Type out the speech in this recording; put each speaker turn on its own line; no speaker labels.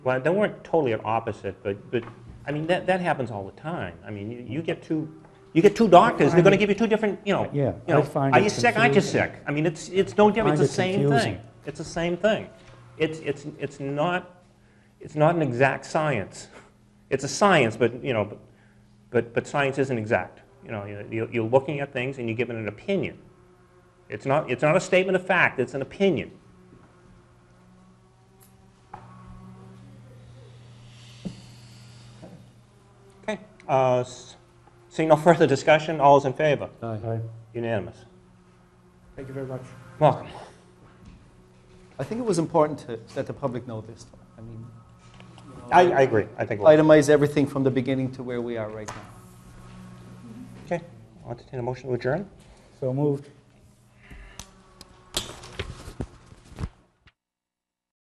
Well, they weren't totally at opposite, but, but, I mean, that, that happens all the time. I mean, you, you get two, you get two doctors, they're gonna give you two different, you know.
Yeah,
you know,
I find
Are
it
you sick, aren't you
confusing.
sick? I mean, it's, it's no different,
Find
it's the
it
same
confusing.
thing. It's the same thing. It's, it's, it's not, it's not an exact science. It's a science, but, you know, but- but, but science isn't exact. You know, you- you're, you're looking at things and you're giving an opinion. It's not, it's not a statement of fact, it's an opinion. Okay, uh, s- seeing no further discussion, all is in favor?
Aye.
Unanimous.
Thank you very much.
Welcome.
I think it was important to let the public know this. I mean,
I, I agree, I think, we'll-
itemize everything from the beginning to where we are right now.
okay, I'll entertain a motion to adjourn.
So moved.